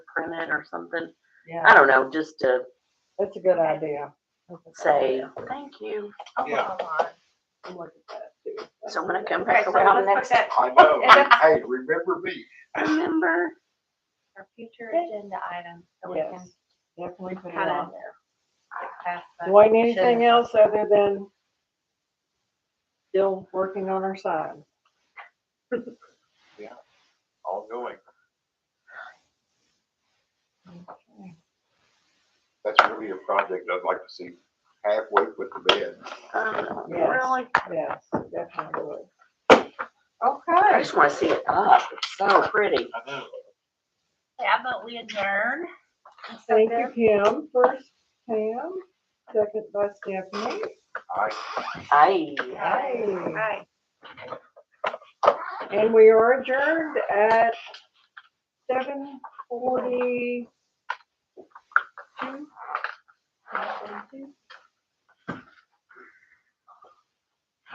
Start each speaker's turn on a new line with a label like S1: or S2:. S1: print it or something. I
S2: Um,
S3: Yeah,
S1: don't know, just to
S3: that's a good idea. That's a good
S1: say,
S3: idea.
S1: thank you.
S2: I'll put
S4: Yeah.
S2: it online.
S3: I'm looking at that too.
S1: So when I come
S2: Okay,
S1: back
S2: so
S1: around
S2: let's put
S1: next,
S2: that
S4: I know, hey, remember me,
S1: remember,
S2: for future agenda items, so we can
S3: Yes, definitely put it
S2: kind of
S3: on.
S2: pass that.
S3: Dwayne, anything else other than still working on our sign?
S4: ongoing,
S3: Okay.
S4: that's really a project I'd like to see halfway put to bed.
S1: um,
S3: Yes.
S1: really,
S3: Yes, definitely.
S1: I
S3: Okay.
S1: just wanna see it up. It's so pretty.
S4: I know.
S2: Yeah, but we adjourn.
S3: Thank you, Kim. First, Pam, second by Stephanie.
S4: I
S1: Aye.
S3: Aye.
S2: Right.
S3: And we are adjourned at seven forty-two.